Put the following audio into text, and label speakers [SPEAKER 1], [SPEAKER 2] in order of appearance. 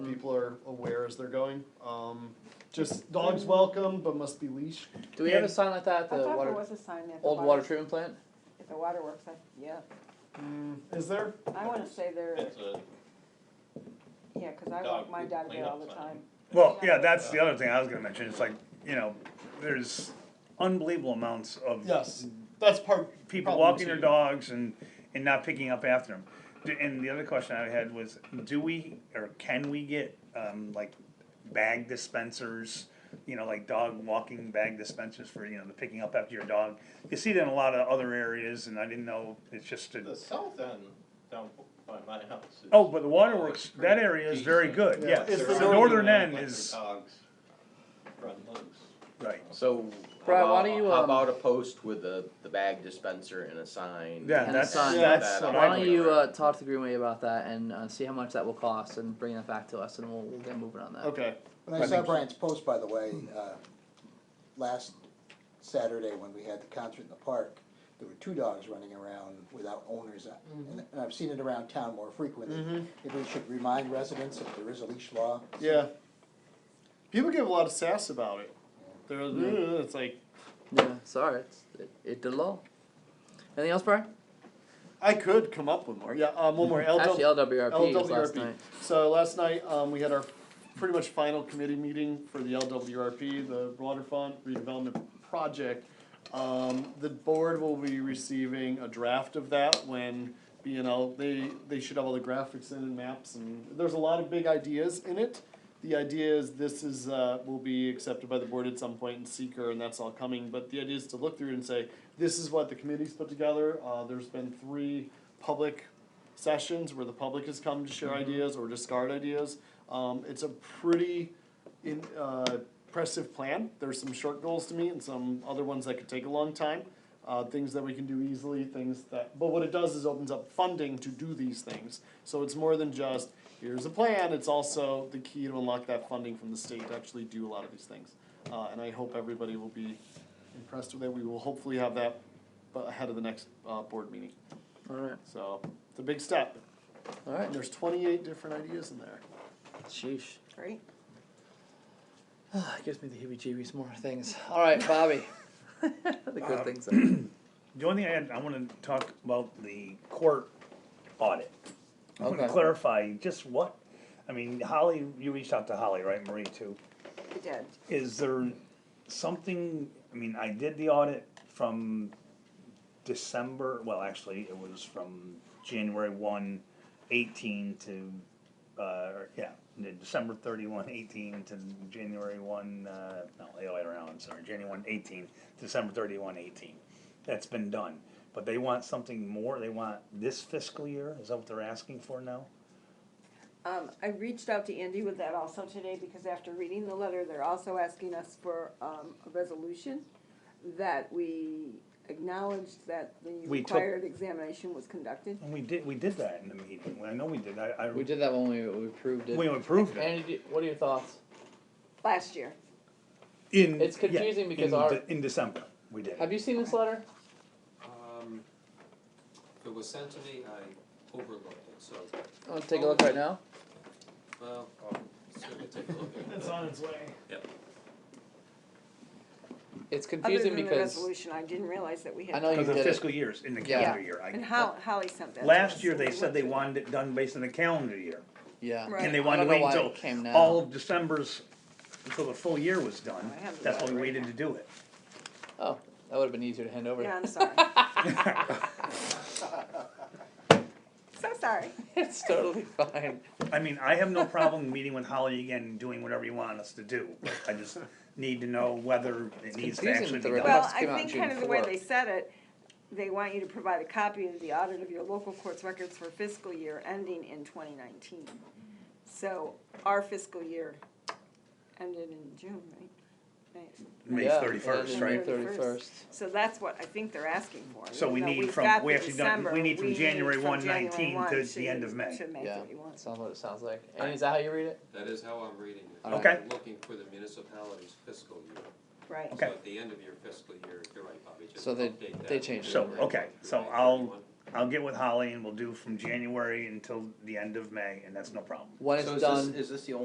[SPEAKER 1] people are aware as they're going. Um, just dogs welcome, but must be leashed.
[SPEAKER 2] Do we have a sign like that at
[SPEAKER 3] I
[SPEAKER 2] the
[SPEAKER 3] thought there
[SPEAKER 2] water,
[SPEAKER 3] was a sign there. at the
[SPEAKER 2] old
[SPEAKER 3] water-
[SPEAKER 2] water treatment plant?
[SPEAKER 3] At the waterworks, I, yeah,
[SPEAKER 1] Mm, is there?
[SPEAKER 3] I wanna say there,
[SPEAKER 4] It's a,
[SPEAKER 3] yeah, cause I
[SPEAKER 4] Dog
[SPEAKER 3] walk mine
[SPEAKER 4] poop
[SPEAKER 3] down there
[SPEAKER 4] cleanup
[SPEAKER 3] all the
[SPEAKER 4] sign.
[SPEAKER 3] time.
[SPEAKER 5] Well, yeah, that's the other thing I was gonna mention, it's like, you know, there's unbelievable amounts of
[SPEAKER 1] Yes, that's part.
[SPEAKER 5] people
[SPEAKER 1] problem
[SPEAKER 5] walking their
[SPEAKER 1] too.
[SPEAKER 5] dogs and, and not picking up after them. D- And the other question I had was, do we, or can we get, um, like bag dispensers? You know, like dog walking bag dispensers for, you know, the picking up after your dog. You see that in a lot of other areas and I didn't know, it's just
[SPEAKER 4] the
[SPEAKER 5] a,
[SPEAKER 4] south end down by my house. is-
[SPEAKER 5] oh, but the waterworks, that area is very good,
[SPEAKER 1] Yeah.
[SPEAKER 5] yes.
[SPEAKER 1] It's
[SPEAKER 4] There
[SPEAKER 1] the
[SPEAKER 4] are
[SPEAKER 5] northern
[SPEAKER 4] no
[SPEAKER 5] end
[SPEAKER 4] electric
[SPEAKER 5] is,
[SPEAKER 4] Dogs run loose.
[SPEAKER 5] right,
[SPEAKER 6] So. how
[SPEAKER 2] Brad, why
[SPEAKER 6] about-
[SPEAKER 2] don't you,
[SPEAKER 6] How
[SPEAKER 2] um,
[SPEAKER 6] about a post with the, the bag dispenser and a sign?
[SPEAKER 5] Yeah,
[SPEAKER 6] and
[SPEAKER 2] that's-
[SPEAKER 6] sign
[SPEAKER 1] that's
[SPEAKER 6] that
[SPEAKER 1] what
[SPEAKER 6] up
[SPEAKER 2] Why
[SPEAKER 6] on
[SPEAKER 2] don't
[SPEAKER 6] the
[SPEAKER 2] you
[SPEAKER 6] door?
[SPEAKER 2] uh, talk to Greenway about that and uh, see how much that will cost and bring that back to us and we'll, we'll get moving on that.
[SPEAKER 1] Okay.
[SPEAKER 7] When
[SPEAKER 5] I
[SPEAKER 7] I saw
[SPEAKER 5] think-
[SPEAKER 7] Brian's post, by the way, uh, last Saturday when we had the concert in the park, there were two dogs running around without owners. uh, And and I've seen it around town more frequently. Maybe we should remind residents if there is a leash law.
[SPEAKER 1] Yeah. People give a lot of sass about it. They're, "Ugh," it's like
[SPEAKER 2] Yeah, sorry, it's, it, it did low. Anything else, Brian?
[SPEAKER 1] I could come up with more. Yeah, um, one more. LW
[SPEAKER 2] Actually, LWRP was last
[SPEAKER 1] LWRP.
[SPEAKER 2] night.
[SPEAKER 1] So last night, um, we had our pretty much final committee meeting for the LWRP, the waterfront redevelopment project. Um, the board will be receiving a draft of that when, you know, they, they should have all the graphics in and maps and there's a lot of big ideas in it. The idea is this is, uh, will be accepted by the board at some point in seeker and that's all coming, but the idea is to look through and say, this is what the committee's put together, uh, there's been three public sessions where the public has come to share ideas or discard ideas. Um, it's a pretty in, uh, impressive plan. There's some short goals to meet and some other ones that could take a long time. Uh, things that we can do easily, things that, but what it does is opens up funding to do these things. So it's more than just, here's a plan, it's also the key to unlock that funding from the state to actually do a lot of these things. Uh, and I hope everybody will be impressed with it. We will hopefully have that uh, ahead of the next, uh, board meeting.
[SPEAKER 2] Alright,
[SPEAKER 1] So it's a big step.
[SPEAKER 2] alright.
[SPEAKER 1] There's twenty-eight different ideas in there.
[SPEAKER 2] Sheesh.
[SPEAKER 3] Great.
[SPEAKER 2] It gives me the heebie jeebies, more things. Alright, Bobby. the good
[SPEAKER 5] Um,
[SPEAKER 2] things.
[SPEAKER 5] The only thing I had, I wanna talk about the court audit. I wanna
[SPEAKER 2] Okay.
[SPEAKER 5] clarify just what, I mean, Holly, you reached out to Holly, right, Marie too?
[SPEAKER 3] I did.
[SPEAKER 5] Is there something, I mean, I did the audit from December, well, actually, it was from January one eighteen to, uh, yeah, the December thirty-one eighteen to January one, uh, no, the other way around, I'm sorry, January one eighteen, December thirty-one eighteen. That's been done, but they want something more, they want this fiscal year, is that what they're asking for now?
[SPEAKER 3] Um, I reached out to Andy with that also today, because after reading the letter, they're also asking us for, um, a resolution that we acknowledged that the
[SPEAKER 5] We took-
[SPEAKER 3] required examination was conducted.
[SPEAKER 5] And we did, we did that in the meeting, I know we did, I, I,
[SPEAKER 2] We did that when we, we approved it.
[SPEAKER 5] we approved it.
[SPEAKER 2] Andy, do- what are your thoughts?
[SPEAKER 3] Last year,
[SPEAKER 5] In
[SPEAKER 2] It's confusing because
[SPEAKER 5] in
[SPEAKER 2] our-
[SPEAKER 5] De- in December we did.
[SPEAKER 2] Have you seen this letter?
[SPEAKER 8] Um, if it was sent to me, I overlooked it, so,
[SPEAKER 2] I'm gonna take a look right now.
[SPEAKER 8] well, certainly take a look at it.
[SPEAKER 1] It's on its way.
[SPEAKER 2] It's
[SPEAKER 3] other
[SPEAKER 2] confusing
[SPEAKER 3] than the
[SPEAKER 2] because
[SPEAKER 3] resolution, I didn't realize that we
[SPEAKER 2] I
[SPEAKER 3] had.
[SPEAKER 2] know you
[SPEAKER 5] Because of
[SPEAKER 2] did it.
[SPEAKER 5] fiscal years in the
[SPEAKER 2] Yeah.
[SPEAKER 5] calendar year.
[SPEAKER 3] And
[SPEAKER 5] I,
[SPEAKER 3] Ho- Holly sent that. to
[SPEAKER 5] last
[SPEAKER 3] us,
[SPEAKER 5] year
[SPEAKER 3] and we
[SPEAKER 5] they said
[SPEAKER 3] went
[SPEAKER 5] they
[SPEAKER 3] through
[SPEAKER 5] wanted it done based on the calendar year,
[SPEAKER 2] yeah.
[SPEAKER 3] Right.
[SPEAKER 5] and they
[SPEAKER 3] I
[SPEAKER 5] wanted
[SPEAKER 2] don't know
[SPEAKER 5] to wait
[SPEAKER 2] why it
[SPEAKER 5] until
[SPEAKER 2] came now.
[SPEAKER 5] all of December's until the full year was done.
[SPEAKER 3] I have the
[SPEAKER 5] That's why we
[SPEAKER 3] letter right
[SPEAKER 5] waited
[SPEAKER 3] now.
[SPEAKER 5] to do it.
[SPEAKER 2] Oh, that would have been easier to hand over.
[SPEAKER 3] Yeah, I'm sorry. So sorry.
[SPEAKER 2] it's totally fine.
[SPEAKER 5] I mean, I have no problem meeting with Holly again and doing whatever you want us to do. but I just need to know whether it needs to
[SPEAKER 2] confusing
[SPEAKER 5] actually
[SPEAKER 2] that the
[SPEAKER 5] be done.
[SPEAKER 2] report-
[SPEAKER 3] Well,
[SPEAKER 2] must
[SPEAKER 3] I
[SPEAKER 2] came out
[SPEAKER 3] think
[SPEAKER 2] June
[SPEAKER 3] kind of the way
[SPEAKER 2] 4th.
[SPEAKER 3] they said it, they want you to provide a copy of the audit of your local court's records for fiscal year ending in twenty nineteen. So our fiscal year ended in June, right? May.
[SPEAKER 5] May
[SPEAKER 2] yeah,
[SPEAKER 5] thirty first,
[SPEAKER 3] and
[SPEAKER 5] right?
[SPEAKER 3] then-
[SPEAKER 2] Thirty first.
[SPEAKER 3] So that's what I think they're asking for.
[SPEAKER 5] So we
[SPEAKER 3] even though
[SPEAKER 5] need
[SPEAKER 3] we've
[SPEAKER 5] from-
[SPEAKER 3] got
[SPEAKER 5] we
[SPEAKER 3] the
[SPEAKER 5] actually don't- we
[SPEAKER 3] December,
[SPEAKER 5] need from
[SPEAKER 3] we need
[SPEAKER 5] January
[SPEAKER 3] from
[SPEAKER 5] 1,
[SPEAKER 3] January
[SPEAKER 5] 19
[SPEAKER 3] 1
[SPEAKER 5] to the
[SPEAKER 3] should-
[SPEAKER 5] end of May.
[SPEAKER 3] should May
[SPEAKER 2] Yeah,
[SPEAKER 3] 31.
[SPEAKER 2] sounds what it sounds like. And is that how you read it?
[SPEAKER 8] That is how I'm reading it.
[SPEAKER 2] All
[SPEAKER 5] right.
[SPEAKER 8] I'm Looking for the municipality's fiscal year.
[SPEAKER 3] Right.
[SPEAKER 5] Okay.
[SPEAKER 8] So at the end of your fiscal year, you're right, Bobby, just
[SPEAKER 2] So they-
[SPEAKER 8] update that.
[SPEAKER 2] they changed
[SPEAKER 5] it. So, okay, so I'll- I'll get with Holly and we'll do from January until the end of May, and that's no problem.
[SPEAKER 2] When
[SPEAKER 6] So
[SPEAKER 2] it's
[SPEAKER 6] is this-
[SPEAKER 2] done.
[SPEAKER 6] Is this the only